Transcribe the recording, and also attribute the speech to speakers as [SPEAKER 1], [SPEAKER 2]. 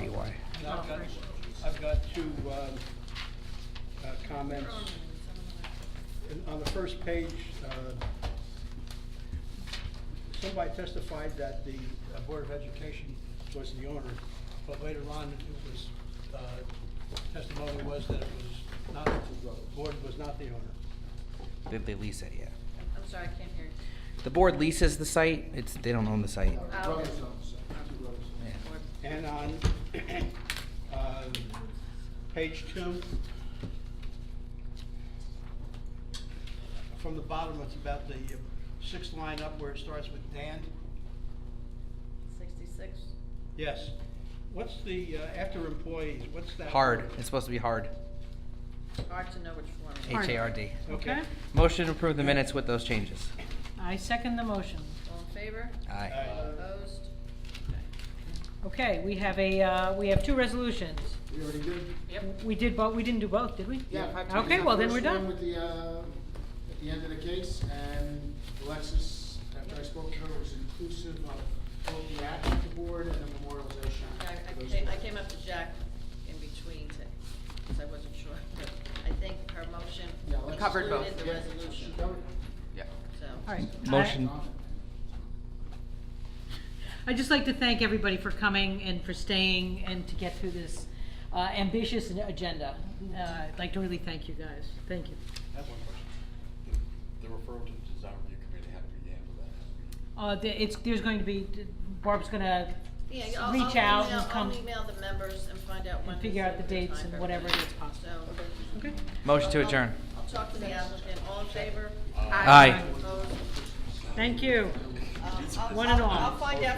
[SPEAKER 1] E
[SPEAKER 2] I've got,
[SPEAKER 3] Offer.
[SPEAKER 2] I've got two um, uh, comments. And On the first page, uh, somebody testified that the uh, Board of Education was the owner, but later on, it was, uh, testimony was that it was not, the board was not the owner.
[SPEAKER 1] They, they lease it, yeah.
[SPEAKER 3] I'm sorry, I can't hear you.
[SPEAKER 1] The board leases the site, it's, they don't own the site.
[SPEAKER 3] Oh.
[SPEAKER 4] Brothers on the side, two brothers.
[SPEAKER 1] Yeah.
[SPEAKER 3] Or-
[SPEAKER 2] And on uh, page two, from the bottom, it's about the uh, sixth line up where it starts with Dan.
[SPEAKER 3] Sixty-six?
[SPEAKER 2] Yes. What's the, uh, after employees, what's that?
[SPEAKER 1] Hard, it's supposed to be hard.
[SPEAKER 3] Hard to know which one.
[SPEAKER 5] Hard.
[SPEAKER 1] H A R D.
[SPEAKER 2] Okay.
[SPEAKER 5] Okay,
[SPEAKER 1] Motion to approve the minutes with those changes.
[SPEAKER 5] I second the motion.
[SPEAKER 3] All in favor?
[SPEAKER 5] Uh,
[SPEAKER 2] Uh,
[SPEAKER 1] Aye.
[SPEAKER 2] Aye.
[SPEAKER 3] Opposed?
[SPEAKER 5] Okay, we have a, uh, we have two resolutions.
[SPEAKER 4] We already did?
[SPEAKER 3] Yep.
[SPEAKER 5] We did both, we didn't do both, did we?
[SPEAKER 4] Yeah, in fact, we
[SPEAKER 5] Okay,
[SPEAKER 4] did
[SPEAKER 5] well,
[SPEAKER 4] the
[SPEAKER 5] then we're
[SPEAKER 4] first one
[SPEAKER 5] done.
[SPEAKER 4] with the, uh, at the end of the case, and Alexis, after I spoke to her, was inclusive of both the action of the board and the memorialization.
[SPEAKER 3] I, I
[SPEAKER 4] Those
[SPEAKER 3] came, I
[SPEAKER 4] two.
[SPEAKER 3] came up to Jack in between to, because I wasn't sure, but I think her motion
[SPEAKER 4] Yeah, Alexis
[SPEAKER 3] covered
[SPEAKER 4] did.
[SPEAKER 3] both the
[SPEAKER 4] Yeah,
[SPEAKER 3] resolution,
[SPEAKER 4] She covered.
[SPEAKER 3] so.
[SPEAKER 5] All right. I-
[SPEAKER 1] Motion.
[SPEAKER 5] I'd just like to thank everybody for coming and for staying and to get through this uh, ambitious agenda. Uh, I'd like to really thank you guys. Thank you.
[SPEAKER 6] I have one question. The- The referral to the design review committee, how do we handle that? How do we-
[SPEAKER 5] Uh, the- It's, there's going to be, Barb's going to
[SPEAKER 3] Yeah, I'll, I'll
[SPEAKER 5] reach out
[SPEAKER 3] email,
[SPEAKER 5] and come.
[SPEAKER 3] I'll email the members and find out when.
[SPEAKER 5] And figure
[SPEAKER 3] is
[SPEAKER 5] out the
[SPEAKER 3] good
[SPEAKER 5] dates
[SPEAKER 3] time
[SPEAKER 5] and
[SPEAKER 3] for
[SPEAKER 5] whatever it
[SPEAKER 3] everything.
[SPEAKER 5] is possible.
[SPEAKER 3] So,
[SPEAKER 5] Okay.
[SPEAKER 1] Motion to adjourn.
[SPEAKER 3] I'll talk to the applicant, all in favor?
[SPEAKER 1] Aye.
[SPEAKER 3] Opposed?
[SPEAKER 5] Thank you.
[SPEAKER 3] Um, I'll-
[SPEAKER 5] One and
[SPEAKER 3] I'll-
[SPEAKER 5] all.
[SPEAKER 3] I'll find out